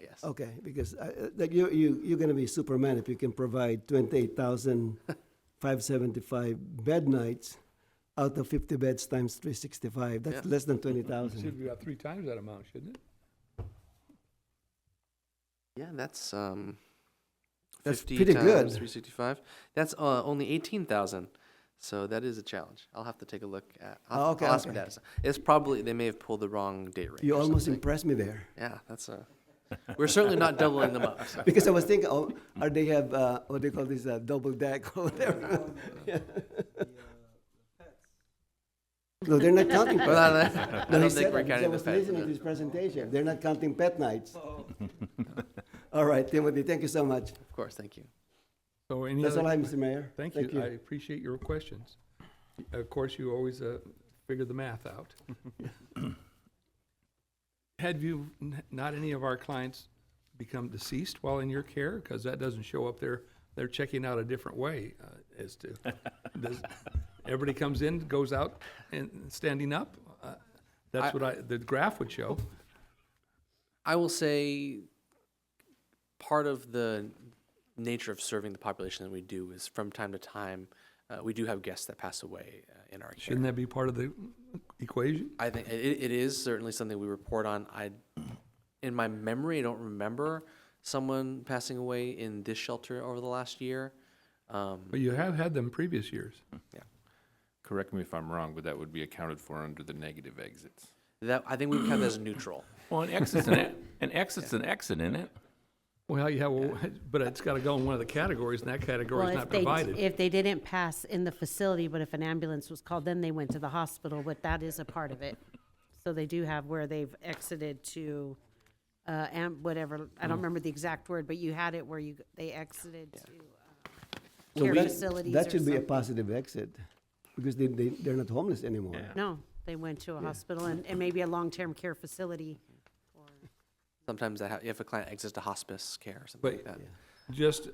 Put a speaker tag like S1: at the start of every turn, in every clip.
S1: yes.
S2: Okay, because I- uh, like you, you, you're gonna be Superman if you can provide twenty-eight thousand five seventy-five bed nights out of fifty beds times three sixty-five, that's
S1: Yeah.
S2: less than twenty
S3: It should
S2: thousand.
S3: be about three times that amount, shouldn't it?
S1: Yeah, that's um.
S2: That's
S1: 50
S2: pretty
S1: times
S2: good.
S1: 365. That's uh, only 18,000. So that is a challenge. I'll have to take a look at. I'll,
S2: Oh,
S1: I'll
S2: okay,
S1: ask
S2: okay.
S1: That. It's probably they may have pulled the wrong date range.
S2: You
S1: or
S2: almost
S1: something.
S2: impressed me there,
S1: Yeah, that's a. We're certainly not doubling them up. so.
S2: because I was thinking, oh, are they have, uh, what do you call this, uh, double deck or whatever? No, they're not counting
S1: But
S2: pet.
S1: I don't- I
S2: No, he
S1: don't
S2: said
S1: think we're
S2: that because I
S1: counting the
S2: was
S1: pets. Oh.
S2: listening to his presentation, they're not counting pet nights. All right, Timothy, thank you so much.
S1: Of course, thank you.
S3: So any
S2: That's
S3: other-
S2: all I have, Mr. Mayor.
S3: Thank you. I appreciate your questions. Of course, you always uh, figure the math out. Had you, n- not any of our clients become deceased while in your care? Because that doesn't show up there. They're checking out a different way uh, as to, does, everybody comes in, goes out and standing up? Uh, That's what I, the graph would show.
S1: I will say part of the nature of serving the population that we do is from time to time uh, we do have guests that pass away uh, in our care.
S3: Shouldn't that be part of the equation?
S1: I think it, it is certainly something we report on. I, in my memory, I don't remember someone passing away in this shelter over the last year. Um,
S3: But you have had them previous years.
S4: Correct me if I'm wrong, but that would be accounted for under the negative exits.
S1: that I think we would count that as neutral.
S5: Well, an exit's an, e- an exit's an exit, isn't it?
S3: Well, yeah, well, but it's got to go in one of the categories, and that category
S6: Well,
S3: is
S6: if
S3: not
S6: they,
S3: provided.
S6: if they didn't pass in the facility, but if an ambulance was called, then they went to the hospital, but that is a part of it. So they do have where they've exited to, uh, am, whatever, I don't remember the exact word, but you had it where you, they exited to, uh,
S2: Well,
S6: care
S2: that-
S6: facilities
S2: That
S6: or
S2: should be a
S6: something.
S2: positive exit, because they, they, they're not homeless anymore.
S6: No, they went to a hospital and, and maybe a long-term care facility.
S1: Sometimes that ha- if a client exits to hospice care or something
S3: But
S1: like that.
S3: just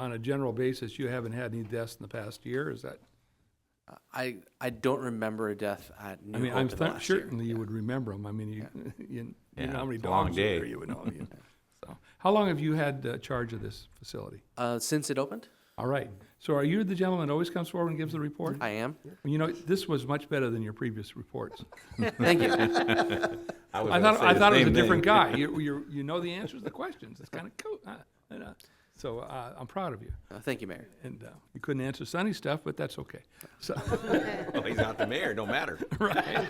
S3: on a general basis, you haven't had any deaths in the past year, is that?
S1: I I don't remember a death at New
S3: I mean,
S1: Hope
S3: I'm
S1: in the
S3: th-
S1: last
S3: certainly
S1: year.
S3: you would remember them. I mean, you, you you know
S5: Yeah,
S3: how many
S5: it's a long
S3: dogs are there,
S5: day.
S3: you would know. you- So, How long have you had uh, charge of this facility?
S1: Uh, since it opened,
S3: All right, so are you the gentleman that always comes forward and gives the report?
S1: I am.
S3: You know, this was much better than your previous reports.
S1: Thank you.
S5: was
S3: I
S5: gonna
S3: thought,
S5: say
S3: I
S5: the
S3: thought it was a
S5: same thing.
S3: different guy. You, you, you know the answers to the questions. It's kind of cool. huh? And, uh, So uh, I'm proud of you.
S1: Uh, thank you, Mayor.
S3: And uh, you couldn't answer sunny stuff, but that's okay. So,
S5: Well, he's not the mayor, no matter.
S3: right.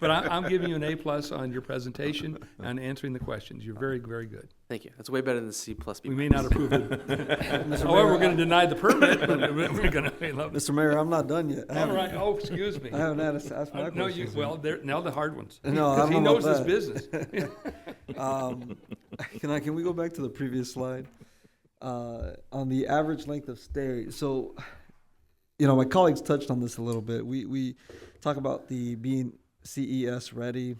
S3: But I, I'm giving you an A plus on your presentation and answering the questions. You're very, very good.
S1: Thank you. That's way better than the C plus B.
S3: We may not approve it. However, we're going to deny the permit, but we're going to.
S7: Mr. Mayor, I'm not done yet. I
S3: All
S7: haven't,
S3: right. Oh, excuse me.
S7: I haven't had a, that's my
S3: Uh, No, you,
S7: question.
S3: well, there, now the hard ones.
S7: No, I
S3: 'Cause
S7: don't know
S3: He knows
S7: about
S3: his business.
S7: Um, can I, can we go back to the previous slide? Uh, on the average length of stay, so, you know, my colleagues touched on this a little bit. We, we talk about the being CES ready.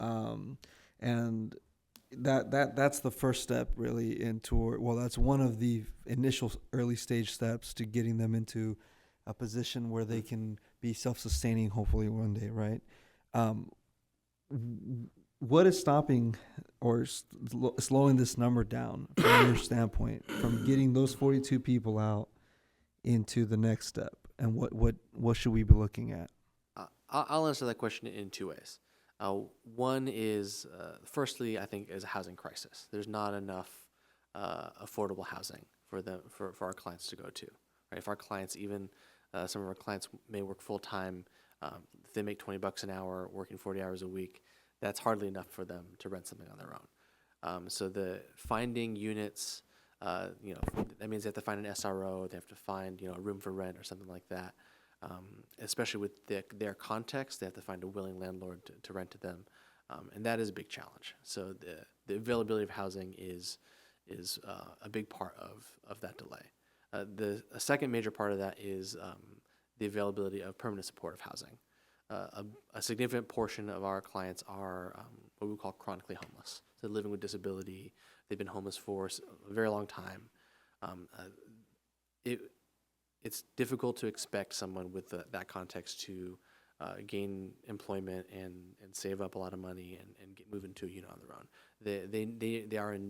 S7: Um, and that, that, that's the first step really into, well, that's one of the initial early stage steps to getting them into a position where they can be self-sustaining hopefully one day, right? Um, w- what is stopping or s- lo- slowing this number down from your standpoint from getting those 42 people out into the next step and what what what should we be looking at
S1: I- I'll I'll answer that question in two ways. Uh, one is, uh, firstly, I think is a housing crisis. There's not enough uh, affordable housing for them for, for our clients to go to. Right? If our clients, even uh, some of our clients, may work full time, um, if they make 20 bucks an hour, working 40 hours a week, that's hardly enough for them to rent something on their own. Um, so the finding units, uh, you know, that means they have to find an SRO, they have to find you know a room for rent or something like that. Um, especially with the, their context, they have to find a willing landlord to, to rent to them, um, and that is a big challenge. So the the availability of housing is is uh, a big part of of that delay. Uh, the a second major part of that is um, the availability of permanent supportive housing. Uh, a, a significant portion of our clients are um, what we call chronically homeless. So living with disability, they've been homeless for s- a very long time. Um, uh, it, it's difficult to expect someone with the, that context to uh, gain employment and, and save up a lot of money and, and get, move into a unit on their own. They, they, they, they are in